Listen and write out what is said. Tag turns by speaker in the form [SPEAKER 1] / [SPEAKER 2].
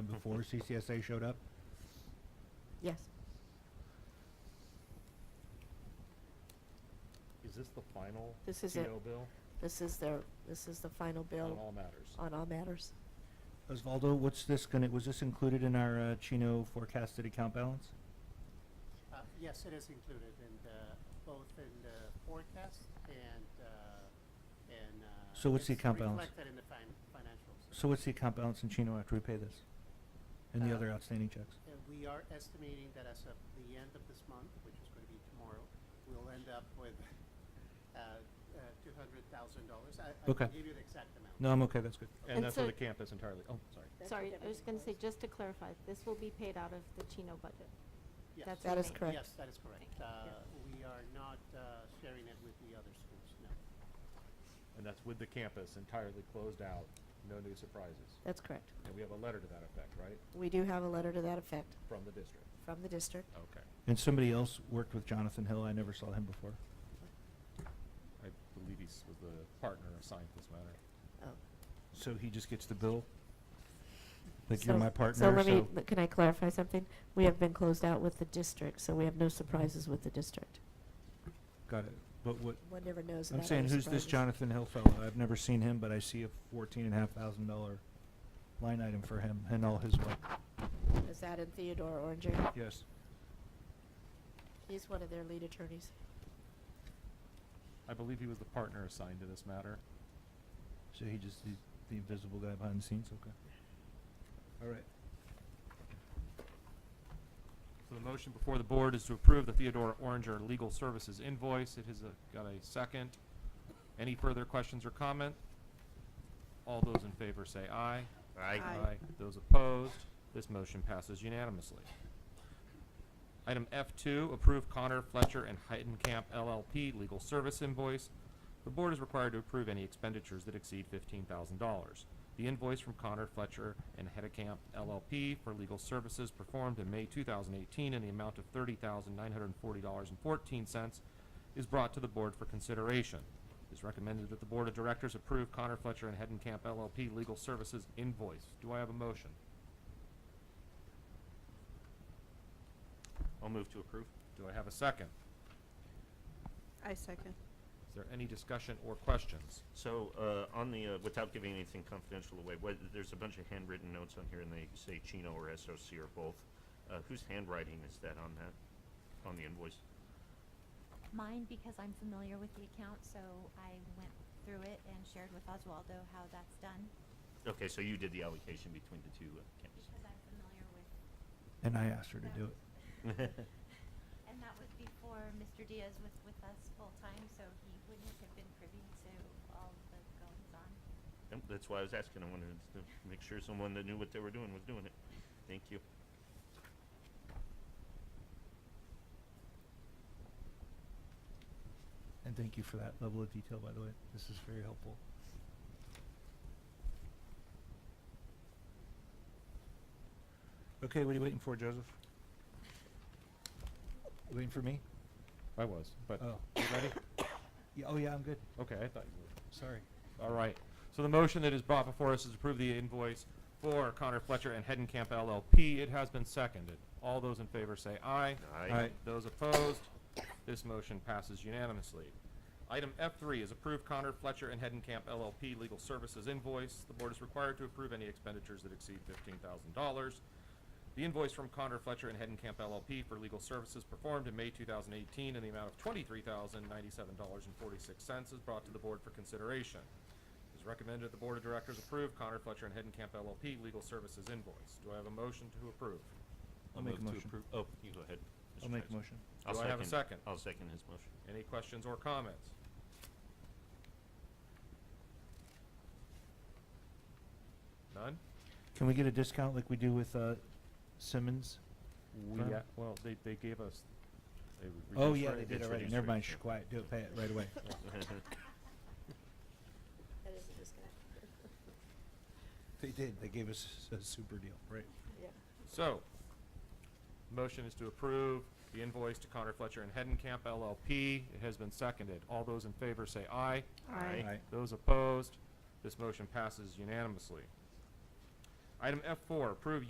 [SPEAKER 1] before CCSA showed up?
[SPEAKER 2] Yes.
[SPEAKER 3] Is this the final
[SPEAKER 2] This is it.
[SPEAKER 3] CO bill
[SPEAKER 2] This is their, this is the final
[SPEAKER 3] on
[SPEAKER 2] bill
[SPEAKER 3] all matters?
[SPEAKER 2] on all matters.
[SPEAKER 1] Osvaldo, what's this gonna, was this included in our uh, Chino forecasted account balance?
[SPEAKER 4] Uh, Yes, it is included in the, both in the forecast and, uh, and. uh,
[SPEAKER 1] So what's the
[SPEAKER 4] it's
[SPEAKER 1] account balance?
[SPEAKER 4] Reflected in the fin- financials.
[SPEAKER 1] So what's the account balance in Chino after we pay this? And the
[SPEAKER 4] Uh,
[SPEAKER 1] other outstanding checks?
[SPEAKER 4] Uh, We are estimating that as of the end of this month, which is going to be tomorrow, we'll end up with uh, two hundred thousand dollars. I I
[SPEAKER 1] Okay.
[SPEAKER 4] can give you the exact amount.
[SPEAKER 1] No, I'm okay, that's good.
[SPEAKER 3] And
[SPEAKER 5] And
[SPEAKER 3] that's for the
[SPEAKER 5] so-
[SPEAKER 3] campus entirely. Oh, sorry.
[SPEAKER 5] Sorry, I was gonna say, just to clarify, this will be paid out of the Chino budget.
[SPEAKER 4] Yes.
[SPEAKER 5] that's
[SPEAKER 2] That is
[SPEAKER 5] amazing.
[SPEAKER 2] correct.
[SPEAKER 4] Yes, that is correct.
[SPEAKER 5] Thank you.
[SPEAKER 4] Uh, We are not uh, sharing it with the other schools, no.
[SPEAKER 3] And that's with the campus entirely closed out, no new surprises.
[SPEAKER 2] That's correct.
[SPEAKER 3] And we have a letter to that effect, right,
[SPEAKER 2] We do have a letter to that effect
[SPEAKER 3] from the district?
[SPEAKER 2] from the district.
[SPEAKER 3] Okay.
[SPEAKER 1] And somebody else worked with Jonathan Hill, I never saw him before.
[SPEAKER 3] I believe he was the partner assigned to this matter.
[SPEAKER 2] Oh.
[SPEAKER 1] So he just gets the bill? Like you're
[SPEAKER 2] So-
[SPEAKER 1] my
[SPEAKER 2] So
[SPEAKER 1] partner,
[SPEAKER 2] let me,
[SPEAKER 1] so,
[SPEAKER 2] but can I clarify something? We have been closed out with the district, so we have no surprises with the district.
[SPEAKER 1] got it. But what,
[SPEAKER 2] One never knows
[SPEAKER 1] I'm
[SPEAKER 2] about
[SPEAKER 1] saying,
[SPEAKER 2] other
[SPEAKER 1] who's this
[SPEAKER 2] surprises.
[SPEAKER 1] Jonathan Hill fellow? I've never seen him, but I see a fourteen and a half thousand dollar line item for him and all his work.
[SPEAKER 2] Is that in Theodore Oranger?
[SPEAKER 1] Yes.
[SPEAKER 2] He's one of their lead attorneys.
[SPEAKER 3] I believe he was the partner assigned to this matter.
[SPEAKER 1] So he just, he's the invisible guy behind the scenes, okay. All right.
[SPEAKER 6] So the motion before the board is to approve the Theodore Oranger Legal Services invoice. It has a- got a second. Any further questions or comment? All those in favor say aye.
[SPEAKER 2] Aye.
[SPEAKER 6] Those opposed, this motion passes unanimously. Item F2, approve Connor Fletcher and Heidenkamp LLP Legal Service invoice. The board is required to approve any expenditures that exceed $15,000. The invoice from Connor Fletcher and Heidenkamp LLP for legal services performed in May 2018 in the amount of $30,940.14 is brought to the board for consideration. It is recommended that the Board of Directors approve Connor Fletcher and Heidenkamp LLP Legal Services invoice. Do I have a motion?
[SPEAKER 3] I'll move to approve.
[SPEAKER 6] Do I have a second?
[SPEAKER 7] I second.
[SPEAKER 6] Is there any discussion or questions?
[SPEAKER 8] So, uh, on the, uh, without giving anything confidential away, what, there's a bunch of handwritten notes on here and they say Chino or SOC or both. Uh, whose handwriting is that on that, on the invoice?
[SPEAKER 9] Mine, because I'm familiar with the account, so I went through it and shared with Oswaldo how that's done,
[SPEAKER 8] Okay, so you did the allocation between the two uh,
[SPEAKER 9] because I'm familiar with.
[SPEAKER 1] And I asked her to do it.
[SPEAKER 8] campuses.
[SPEAKER 9] And that was before Mr. Diaz was with us full-time, so he wouldn't have been privy to all the goings-on.
[SPEAKER 8] Yep, That's why I was asking, I wanted to make sure someone that knew what they were doing was doing it. Thank you.
[SPEAKER 1] And thank you for that level of detail, by the way. This is very helpful. Okay, what are you waiting for, Joseph? You Waiting for me?
[SPEAKER 3] I was, but,
[SPEAKER 1] Oh.
[SPEAKER 3] you ready?
[SPEAKER 1] Yeah, oh yeah, I'm good.
[SPEAKER 3] Okay, I thought you were.
[SPEAKER 1] Sorry.
[SPEAKER 6] All right. So the motion that is brought before us is to approve the invoice for Connor Fletcher and Hedenkamp LLP. It has been seconded. All those in favor say aye.
[SPEAKER 1] Aye.
[SPEAKER 6] Those opposed, this motion passes unanimously. Item F3 is approve Connor Fletcher and Hedenkamp LLP Legal Services invoice. The board is required to approve any expenditures that exceed $15,000. The invoice from Connor Fletcher and Hedenkamp LLP for legal services performed in May 2018 in the amount of $23,097.46 is brought to the board for consideration. It is recommended that the board of directors approve Connor Fletcher and Hedenkamp LLP Legal Services invoice. Do I have a motion to approve?
[SPEAKER 1] I'll make a
[SPEAKER 8] move to
[SPEAKER 1] motion.
[SPEAKER 8] approve- Oh, you go ahead.
[SPEAKER 1] I'll
[SPEAKER 8] Mr.
[SPEAKER 1] make a
[SPEAKER 8] Tyson.
[SPEAKER 1] motion.
[SPEAKER 8] I'll
[SPEAKER 6] Do I have a second?
[SPEAKER 8] I'll second his motion.
[SPEAKER 6] Any questions or comments? None?
[SPEAKER 1] Can we get a discount like we do with, uh, Simmons?
[SPEAKER 3] We,
[SPEAKER 1] Fine.
[SPEAKER 3] a- well, they, they gave us a reduced rate.
[SPEAKER 1] Oh, yeah, they did
[SPEAKER 8] it's
[SPEAKER 1] already.
[SPEAKER 8] reduced
[SPEAKER 1] Never
[SPEAKER 8] rate,
[SPEAKER 1] mind, shh,
[SPEAKER 8] yeah.
[SPEAKER 1] quiet, do it, pay it right away.
[SPEAKER 2] That is a disconnect.
[SPEAKER 1] They did, they gave us a super deal, right?
[SPEAKER 2] Yeah.
[SPEAKER 6] So, motion is to approve the invoice to Connor Fletcher and Hedenkamp LLP. It has been seconded. All those in favor say aye.
[SPEAKER 8] Aye.
[SPEAKER 1] Aye.
[SPEAKER 6] Those opposed, this motion passes unanimously. Item F4, approve